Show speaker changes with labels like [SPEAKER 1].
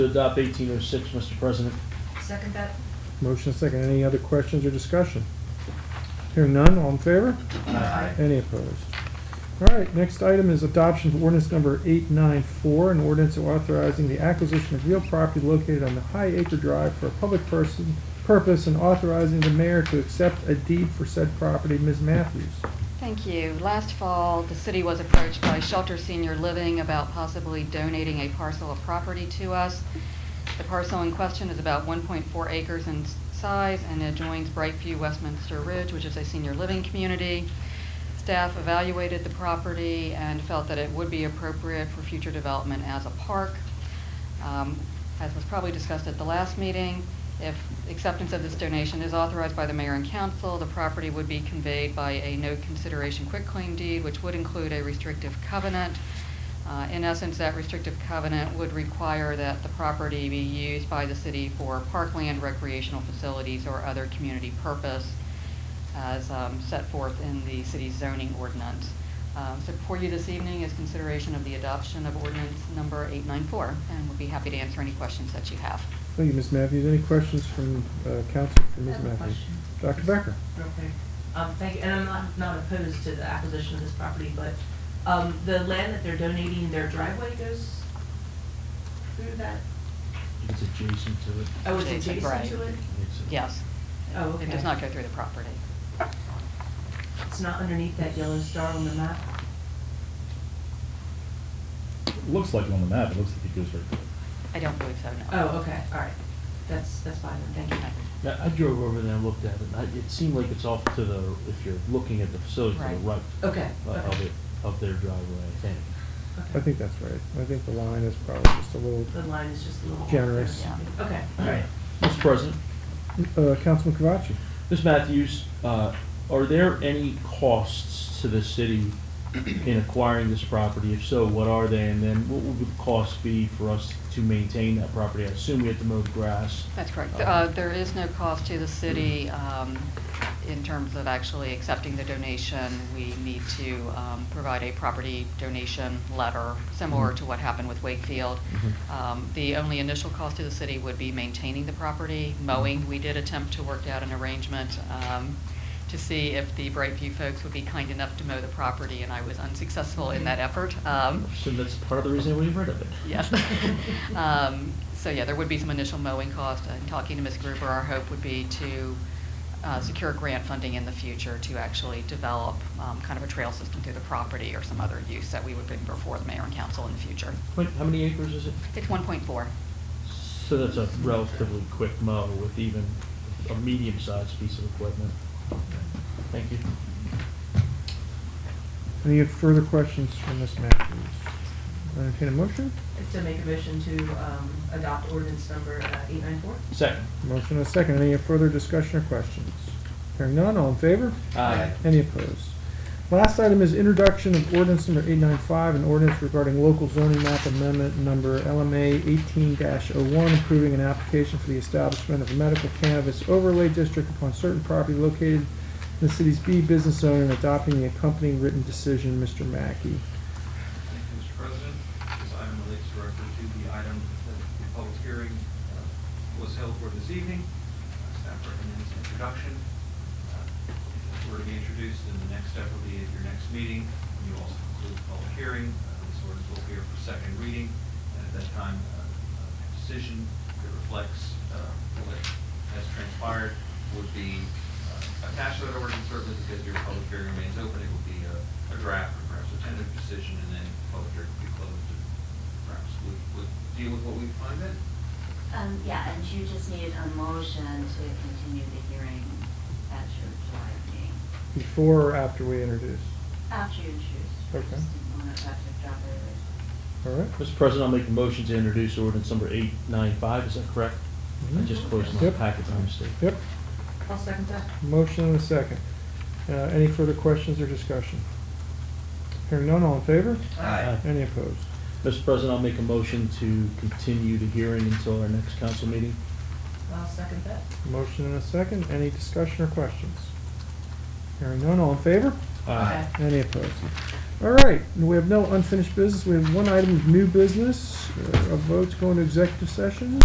[SPEAKER 1] To adopt eighteen oh six, Mr. President.
[SPEAKER 2] Second that?
[SPEAKER 3] Motion second. Any other questions or discussion? Hearing none, all in favor?
[SPEAKER 2] Aye.
[SPEAKER 3] Any opposed? All right, next item is adoption of ordinance number 894, an ordinance authorizing the acquisition of real property located on the High Acre Drive for a public person, purpose, and authorizing the mayor to accept a deed for said property. Ms. Matthews.
[SPEAKER 4] Thank you. Last fall, the city was approached by Shelter Senior Living about possibly donating a parcel of property to us. The parcel in question is about 1.4 acres in s- size and adjoins Brightview Westminster Ridge, which is a senior living community. Staff evaluated the property and felt that it would be appropriate for future development as a park. Um, As was probably discussed at the last meeting, if acceptance of this donation is authorized by the mayor and council, the property would be conveyed by a no consideration quitclaim deed, which would include a restrictive covenant. Uh, In essence, that restrictive covenant would require that the property be used by the city for parkland, recreational facilities, or other community purpose as um, set forth in the city's zoning ordinance. Um, So before you this evening is consideration of the adoption of ordinance number 894, and we'll be happy to answer any questions that you have.
[SPEAKER 3] Thank you, Ms. Matthews. Any questions from uh, council for
[SPEAKER 2] I
[SPEAKER 3] Ms.
[SPEAKER 2] have a
[SPEAKER 3] Matthews?
[SPEAKER 2] question.
[SPEAKER 3] Dr. Becker.
[SPEAKER 2] Real quick. Um, thank you, and I'm not, not opposed to the acquisition of this property, but, um, the land that they're donating, their driveway goes through that?
[SPEAKER 1] It's adjacent to it.
[SPEAKER 2] Oh, it's
[SPEAKER 4] Adjacent,
[SPEAKER 2] adjacent to
[SPEAKER 4] right.
[SPEAKER 2] it?
[SPEAKER 1] It's a-
[SPEAKER 4] Yes.
[SPEAKER 2] Oh,
[SPEAKER 4] It does
[SPEAKER 2] okay.
[SPEAKER 4] not go through the property.
[SPEAKER 2] It's not underneath that yellow star on the map?
[SPEAKER 5] Looks like it on the map, it looks like it goes very good.
[SPEAKER 4] I don't believe so, no.
[SPEAKER 2] Oh, okay, all right. That's, that's fine, then, thank you.
[SPEAKER 1] Yeah, I drove over there and looked at it, I- it seemed like it's off to the, if you're looking at the facility, to the
[SPEAKER 4] Right.
[SPEAKER 1] right
[SPEAKER 2] Okay,
[SPEAKER 1] uh,
[SPEAKER 2] okay.
[SPEAKER 1] of it, of their driveway, I think.
[SPEAKER 2] okay.
[SPEAKER 3] I think that's right. I think the line is probably just a little,
[SPEAKER 2] The line is just a little.
[SPEAKER 3] Generous.
[SPEAKER 4] Yeah.
[SPEAKER 2] Okay, all right.
[SPEAKER 1] Alright. Mr. President,
[SPEAKER 3] Uh, Councilman Kovaci.
[SPEAKER 1] Ms. Matthews, uh, are there any costs to the city in acquiring this property? If so, what are they? And then what would the cost be for us to maintain that property? I assume we have to mow grass.
[SPEAKER 4] That's correct.
[SPEAKER 1] Okay.
[SPEAKER 4] Uh, There is no cost to the city um, in terms of actually accepting the donation. We need to um, provide a property donation letter, similar to what happened with Wakefield. Um, The only initial cost to the city would be maintaining the property, mowing. We did attempt to work out an arrangement um, to see if the Brightview folks would be kind enough to mow the property, and I was unsuccessful in that effort. Um,
[SPEAKER 1] So that's part of the reason we've rid of it.
[SPEAKER 4] Yes. Um, So, yeah, there would be some initial mowing cost. And talking to Ms. Gruber, our hope would be to uh, secure grant funding in the future to actually develop um, kind of a trail system through the property or some other use that we would bring before the mayor and council in the future.
[SPEAKER 1] Wait, how many acres is it?
[SPEAKER 4] It's 1.4.
[SPEAKER 1] So that's a relatively quick mow with even a medium-sized piece of equipment. Thank you.
[SPEAKER 3] Any further questions from Ms. Matthews? Entertain a motion?
[SPEAKER 2] To make a motion to, um, adopt ordinance number uh, eight nine four?
[SPEAKER 1] Second.
[SPEAKER 3] Motion and a second. Any further discussion or questions? Hearing none, all in favor?
[SPEAKER 1] Aye.
[SPEAKER 3] Any opposed? Last item is introduction of ordinance number 895, an ordinance regarding local zoning map amendment number LMA 18-01, approving an application for the establishment of a medical cannabis overlay district upon certain property located in the city's B business zone and adopting the accompanying written decision. Mr. Mackey.
[SPEAKER 6] Thank you, Mr. President. This item relates directly to the item that the public hearing uh, was held for this evening. Uh, Staff recommends introduction. Uh, If it were to be introduced, then the next step would be at your next meeting. when You also conclude the public hearing. Uh, This ordinance will appear for second reading. And at that time, uh, a decision that reflects uh, what has transpired would be uh, attached to that ordinance, certainly because your public hearing remains open. It would be a a draft or perhaps a tentative decision, and then public hearing would be closed. and Perhaps we would deal with what we find then.
[SPEAKER 7] Um, yeah, and you just need a motion to continue the hearing at your July meeting,
[SPEAKER 3] Before or after we introduce?
[SPEAKER 7] after you choose.
[SPEAKER 3] Okay.
[SPEAKER 7] Just want to talk to John Rivers.
[SPEAKER 3] All right?
[SPEAKER 1] Mr. President, I'll make a motion to introduce ordinance number eight nine five, is that correct? I
[SPEAKER 3] Mhm.
[SPEAKER 1] just closed my
[SPEAKER 3] Yep.
[SPEAKER 1] packet by mistake.
[SPEAKER 3] Yep.
[SPEAKER 2] I'll second that.
[SPEAKER 3] Motion and a second. Uh, Any further questions or discussion? Hearing none, all in favor?
[SPEAKER 1] Aye.
[SPEAKER 3] Any opposed?
[SPEAKER 1] Mr. President, I'll make a motion to continue the hearing until our next council meeting.
[SPEAKER 2] I'll second that.
[SPEAKER 3] Motion and a second. Any discussion or questions? Hearing none, all in favor?
[SPEAKER 1] Aye.
[SPEAKER 3] Any opposed? All right, and we have no unfinished business. We have one item of new business, uh, a vote to go into executive session.